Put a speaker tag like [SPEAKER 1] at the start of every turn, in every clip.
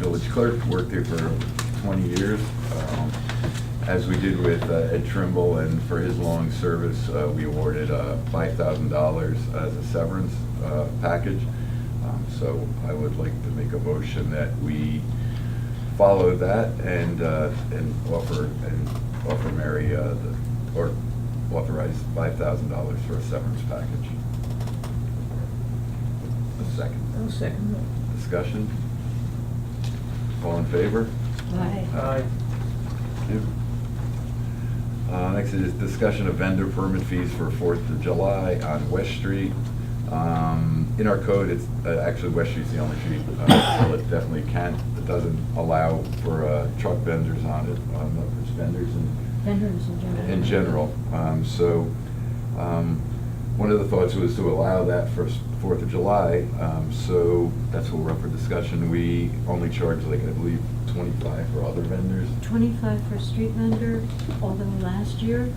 [SPEAKER 1] village clerk, worked there for 20 years. Um, As we did with uh, Ed Trimble, and for his long service, uh, we awarded uh, $5,000 as a severance uh, package. Um, So I would like to make a motion that we follow that and, uh, and offer, and offer Mary, uh, the- or authorize $5,000 for a severance package. A second.
[SPEAKER 2] I'll second that.
[SPEAKER 1] Discussion? All in favor?
[SPEAKER 2] Aye.
[SPEAKER 1] Aye. Uh, next is discussion of vendor permit fees for Fourth of July on West Street. Um, in our code, it's, uh, actually, West Street's the only street, uh, that definitely can, that doesn't allow for, uh, truck vendors on it, um, for vendors and
[SPEAKER 3] Vendors in general.
[SPEAKER 1] in general. Um, So, um, one of the thoughts was to allow that for s- Fourth of July, um, so that's what we're up for discussion. We only charge like, I believe, twenty-five for other vendors.
[SPEAKER 3] Twenty-five for street vendor, although last year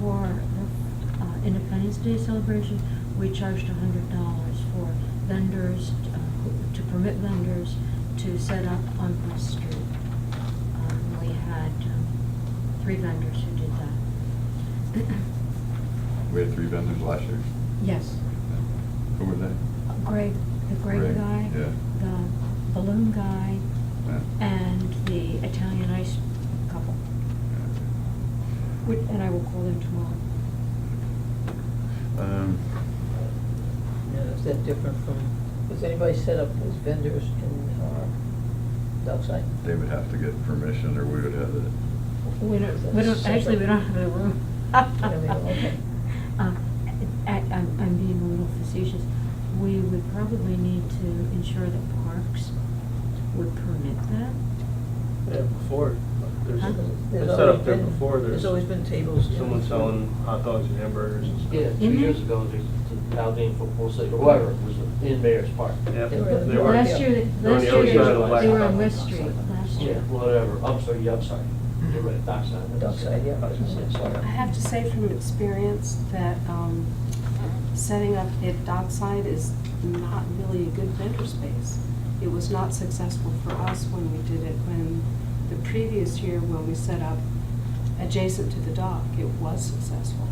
[SPEAKER 3] for the uh, Independence Day celebration, we charged hundred dollars for vendors, uh, to permit vendors to set up on West Street. Um, We had um, three vendors who did that.
[SPEAKER 1] We had three vendors last year.
[SPEAKER 3] Yes,
[SPEAKER 1] Who were they?
[SPEAKER 3] Greg, the Greg
[SPEAKER 1] Greg,
[SPEAKER 3] guy,
[SPEAKER 1] yeah.
[SPEAKER 3] the balloon guy,
[SPEAKER 1] Yeah.
[SPEAKER 3] and the Italian ice couple. Which- And I will call them tomorrow.
[SPEAKER 1] Um,
[SPEAKER 2] Now, is that different from, was anybody set up as vendors in our Dockside?
[SPEAKER 1] They would have to get permission, or we would have it.
[SPEAKER 3] We don't, we don't, actually, we don't have a room.
[SPEAKER 2] don't have a room.
[SPEAKER 3] Um, I, I'm, I'm being a little facetious. We would probably need to ensure that parks would permit that.
[SPEAKER 4] Yeah, before, there's,
[SPEAKER 3] Huh?
[SPEAKER 4] they
[SPEAKER 2] There's
[SPEAKER 4] set
[SPEAKER 2] always
[SPEAKER 4] up there
[SPEAKER 2] been-
[SPEAKER 4] before,
[SPEAKER 2] There's
[SPEAKER 4] there's
[SPEAKER 2] always been tables. down
[SPEAKER 4] someone
[SPEAKER 2] there.
[SPEAKER 4] selling hot dogs and hamburgers and stuff.
[SPEAKER 5] Yeah, two
[SPEAKER 2] Mm-hmm.
[SPEAKER 3] In there?
[SPEAKER 5] years ago, the the Aldine Football League, or whoever, was in Mayor's Park.
[SPEAKER 4] Yeah,
[SPEAKER 2] They were-
[SPEAKER 4] they
[SPEAKER 2] were-
[SPEAKER 3] Last
[SPEAKER 4] were,
[SPEAKER 3] year,
[SPEAKER 4] They're on
[SPEAKER 3] last
[SPEAKER 4] the other
[SPEAKER 3] year,
[SPEAKER 4] side of the
[SPEAKER 3] they were
[SPEAKER 4] black.
[SPEAKER 3] on West Street last
[SPEAKER 5] Yeah,
[SPEAKER 3] year.
[SPEAKER 5] whatever, I'm sorry, yeah, I'm sorry, you're right, Dockside.
[SPEAKER 2] Mm-hmm. Dockside, yeah.
[SPEAKER 5] I was gonna say, sorry.
[SPEAKER 6] I have to say from experience that um, setting up at Dockside is not really a good vendor space. It was not successful for us when we did it, when the previous year when we set up adjacent to the dock, it was successful.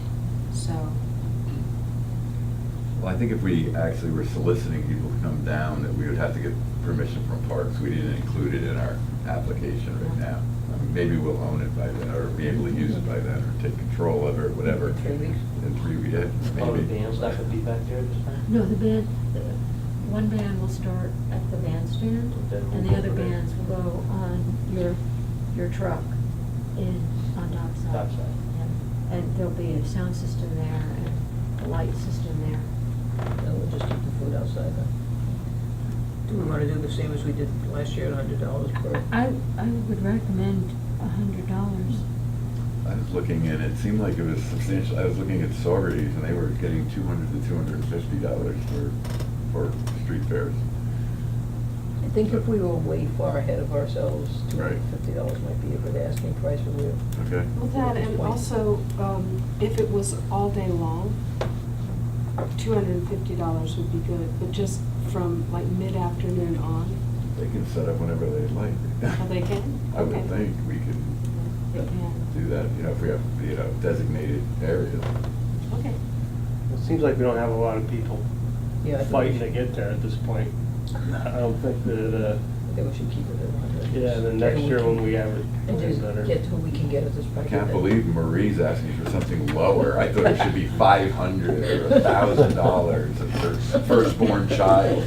[SPEAKER 6] So,
[SPEAKER 1] Well, I think if we actually were soliciting people to come down, that we would have to get permission from parks. We didn't include it in our application right now. I mean, Maybe we'll own it by then, or be able to use it by then, or take control of it, or whatever.
[SPEAKER 2] In three weeks.
[SPEAKER 1] In three weeks, yeah,
[SPEAKER 5] Oh, the
[SPEAKER 1] maybe.
[SPEAKER 5] band's not gonna be back there this time?
[SPEAKER 3] No, the band, the- one band will start at the bandstand, and the other bands will go on your, your truck in, on Dockside.
[SPEAKER 5] Dockside.
[SPEAKER 3] And- And there'll be a sound system there and a light system there.
[SPEAKER 2] No, we'll just keep the food outside then. Do we wanna do the same as we did last year, a hundred dollars per?
[SPEAKER 3] Hmm. I, I would recommend a hundred dollars.
[SPEAKER 1] I was looking and it seemed like it was substantial. I was looking at Saugerties and they were getting two hundred to two hundred and fifty dollars for, for street fairs.
[SPEAKER 2] I think if we were way far ahead of ourselves, two hundred and fifty dollars might be a good asking price, but we're,
[SPEAKER 1] Okay?
[SPEAKER 6] well, that, and also, um, if it was all day long, two hundred and fifty dollars would be good, but just from like mid-afternoon on,
[SPEAKER 1] They can set up whenever they like.
[SPEAKER 6] Oh, they can?
[SPEAKER 1] I would
[SPEAKER 6] Okay.
[SPEAKER 1] think we can
[SPEAKER 6] it can,
[SPEAKER 1] do that, you know, if we have, you know, designated areas.
[SPEAKER 6] okay.
[SPEAKER 7] It seems like we don't have a lot of people
[SPEAKER 2] yeah, I think we
[SPEAKER 7] fighting to
[SPEAKER 2] should,
[SPEAKER 7] get there at this point. I don't think that, uh,
[SPEAKER 2] I think we should keep it at a hundred.
[SPEAKER 7] yeah, then next year when we have it,
[SPEAKER 2] And
[SPEAKER 7] it's
[SPEAKER 2] just
[SPEAKER 7] better.
[SPEAKER 2] get who we can get at this price.
[SPEAKER 1] I can't believe Marie's asking for something lower. I thought it should be five hundred or a thousand dollars for firstborn child.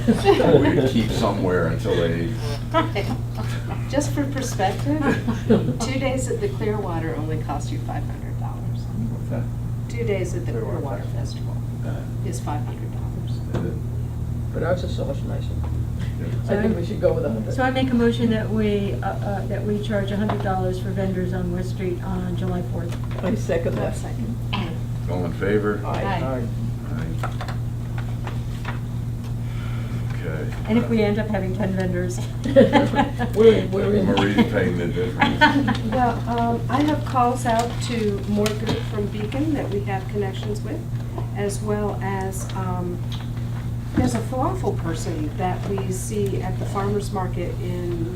[SPEAKER 1] We would keep somewhere until they,
[SPEAKER 6] Just for perspective, two days at the Clearwater only cost you five hundred dollars.
[SPEAKER 1] what's that?
[SPEAKER 6] Two days at the
[SPEAKER 7] Clearwater
[SPEAKER 6] Clearwater Festival
[SPEAKER 1] Uh,
[SPEAKER 6] is five hundred dollars.
[SPEAKER 1] and then-
[SPEAKER 2] But ours is so much nicer.
[SPEAKER 1] yeah.
[SPEAKER 2] I think we should go with a hundred.
[SPEAKER 3] So I make a motion that we, uh, uh, that we charge a hundred dollars for vendors on West Street on July fourth.
[SPEAKER 2] I second that.
[SPEAKER 6] second.
[SPEAKER 1] All in favor?
[SPEAKER 6] Uh,
[SPEAKER 2] Aye.
[SPEAKER 1] Aye. Okay.
[SPEAKER 3] And if we end up having ten vendors.
[SPEAKER 2] We're, we're in.
[SPEAKER 1] Marie's paying the difference.
[SPEAKER 6] Well, um, I have calls out to Morgan from Beacon that we have connections with, as well as, um, there's a falafel person that we see at the farmer's market in